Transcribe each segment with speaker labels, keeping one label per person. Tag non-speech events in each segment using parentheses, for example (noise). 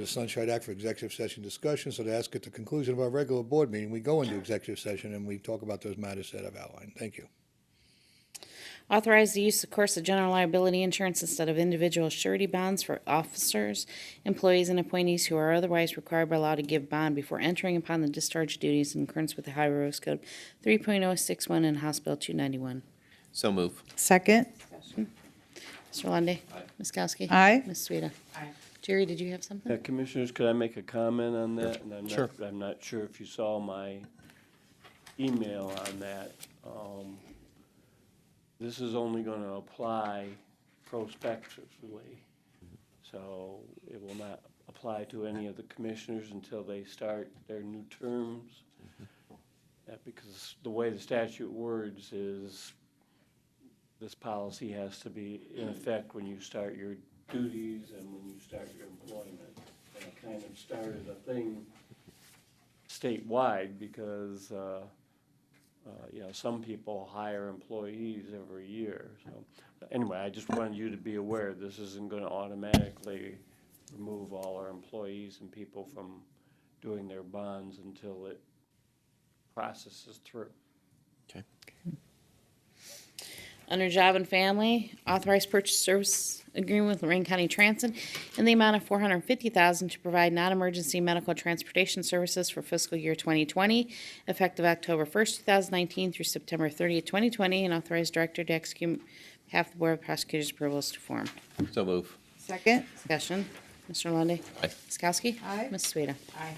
Speaker 1: the Sunshine Act for executive session discussion, so to ask at the conclusion of our regular board meeting, we go into executive session and we talk about those matters that I've outlined. Thank you.
Speaker 2: Authorize the use of course of general liability insurance instead of individual surety bonds for officers, employees, and appointees who are otherwise required by law to give bond before entering upon the discharge duties in accordance with the Ohio Revised Code 3.061 and House Bill 291.
Speaker 3: So move.
Speaker 4: Second,
Speaker 2: Mr. Lundey. Aye. Ms. Kowski.
Speaker 4: Aye.
Speaker 2: Ms. Sueda. Aye. Jerry, did you have
Speaker 5: Uh,
Speaker 2: something?
Speaker 5: Commissioners, could I make a comment on that? And I'm not-
Speaker 3: Sure.
Speaker 5: I'm not sure if you saw my email on that. Um, This is only going to apply prospectively, so it will not apply to any of the commissioners until they start their new terms. Uh, Because the way the statute words is, this policy has to be in effect when you start your duties and when you start your employment. And it kind of started a thing statewide because, uh, uh, you know, some people hire employees every year. So anyway, I just wanted you to be aware, this isn't going to automatically remove all our employees and people from doing their bonds until it processes through.
Speaker 2: Under Job and Family, authorize purchase service agreement with Lorraine County Transit in the amount of $450,000 to provide non-emergency medical transportation services for fiscal year 2020, effective October 1st, 2019 through September 30th, 2020, and authorize director to execute on behalf of the Board of Prosecutors' approval is to form.
Speaker 3: So move.
Speaker 4: second,
Speaker 2: Discussion. Mr. Lundy.
Speaker 3: Aye.
Speaker 2: Ms. Kowski.
Speaker 4: Aye.
Speaker 2: Ms. Sueda. Aye.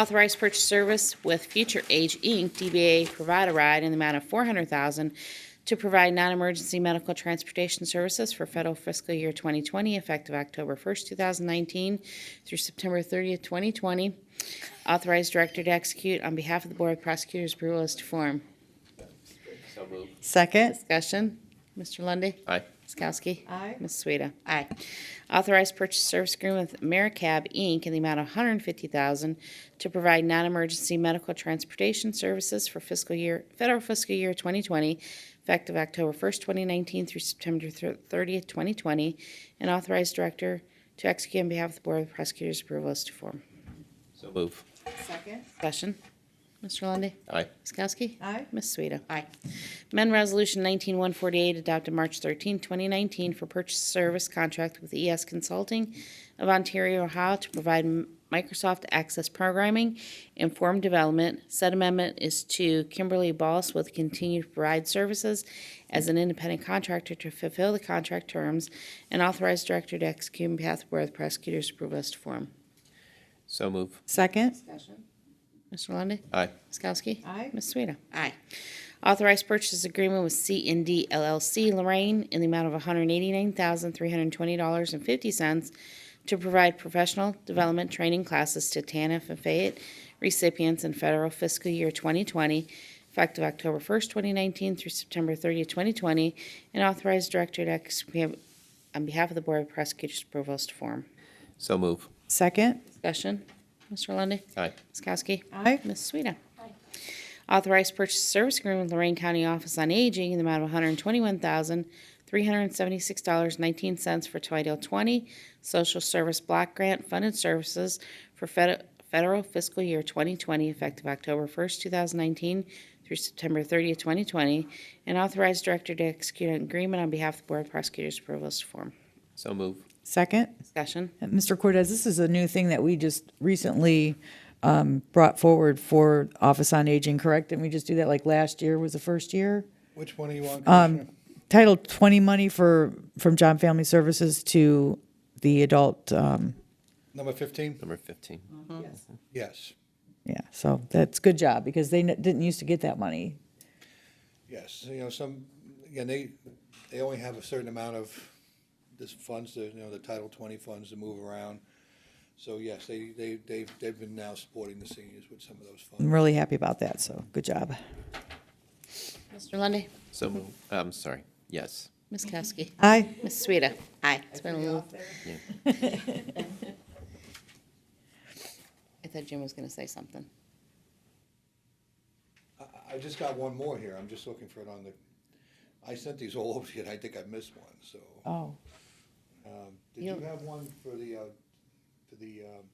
Speaker 2: Authorized purchase service with Future Age Inc., DBA Provide a Ride in the amount of four hundred thousand to provide non-emergency medical transportation services for federal fiscal year twenty twenty, effective October first, two thousand nineteen through September thirtieth, twenty twenty. Authorized director to execute on behalf of the Board of Prosecutors' approval as to form.
Speaker 3: So move.
Speaker 4: second,
Speaker 2: Discussion. Mr. Lundy.
Speaker 3: Aye.
Speaker 2: Ms. Kowski.
Speaker 4: Aye.
Speaker 2: Ms. Sueda. Aye. Authorized purchase service agreement with AmeriCab, Inc. in the amount of $150,000 to provide non-emergency medical transportation services for fiscal year, federal fiscal year 2020, effective October 1st, 2019 through September thir- 30th, 2020, and authorized director to execute on behalf of the Board of Prosecutors' approval as to form.
Speaker 3: So move.
Speaker 4: second,
Speaker 2: Discussion. Mr. Lundy.
Speaker 3: Aye.
Speaker 2: Ms. Kowski?
Speaker 4: Aye.
Speaker 2: Ms. Sueda? Aye. Amend Resolution 19148 adopted March 13, 2019 for purchase service contract with ES Consulting of Ontario, Ohio to provide m- Microsoft Access Programming and Form Development. Said amendment is to Kimberly Ballas with continued provide services as an independent contractor to fulfill the contract terms and authorized director to execute on behalf of the Board of Prosecutors' approval as to form.
Speaker 3: So move.
Speaker 4: second,
Speaker 2: Mr. Lundey?
Speaker 3: Aye.
Speaker 2: Ms. Kowski?
Speaker 4: Aye.
Speaker 2: Ms. Sueda? Aye. Authorized purchase agreement with C and D LLC Lorraine in the amount of $189,320.50 to provide professional development training classes to TANF and Fayette recipients in federal fiscal year 2020, effective October 1st, 2019 through September 30th, 2020, and authorized director to execute on behalf of the Board of Prosecutors' approval as to form.
Speaker 3: So move.
Speaker 4: second,
Speaker 2: Discussion. Mr. Lundey?
Speaker 3: Aye.
Speaker 2: Ms. Kowski?
Speaker 4: Aye.
Speaker 2: Ms. Sueda? Authorized purchase service agreement with Lorraine County Office on Aging in the amount of $121,376.19 for Toledo 20 Social Service Block Grant Funded Services for fed- federal fiscal year 2020 effective October 1st, 2019 through September 30th, 2020, and authorized director to execute an agreement on behalf of the Board of Prosecutors' approval as to form.
Speaker 3: So move.
Speaker 4: second.
Speaker 2: Discussion.
Speaker 4: And Mr. Cortez, this is a new thing that we just recently um, brought forward for Office on Aging, correct? Didn't we just do that like last year was the first year?
Speaker 1: Which one are you on, Commissioner?
Speaker 4: Title 20 money for, from John Family Services to the adult, um,
Speaker 1: Number 15?
Speaker 3: Number 15.
Speaker 1: Yes,
Speaker 4: yeah, so that's good job because they n- didn't used to get that money.
Speaker 1: yes. You know, some, again, they, they only have a certain amount of this funds, the, you know, the Title 20 funds to move around. So yes, they, they, they've, they've been now supporting the seniors with some of those funds.
Speaker 4: I'm really happy about that, so good job.
Speaker 2: Mr. Lundy,
Speaker 3: So move. I'm sorry. Yes.
Speaker 2: Ms. Kowski?
Speaker 4: Aye.
Speaker 2: Ms. Sueda? Aye. It's been a little. (laughs) I thought Jim was gonna say something.
Speaker 1: I just got one more here. I'm just looking for it on the, I sent these all over to you and I think I missed one, so.
Speaker 4: Oh.
Speaker 1: Um, Did
Speaker 2: You
Speaker 1: you
Speaker 2: don't-
Speaker 1: have one for the, uh, for the, um,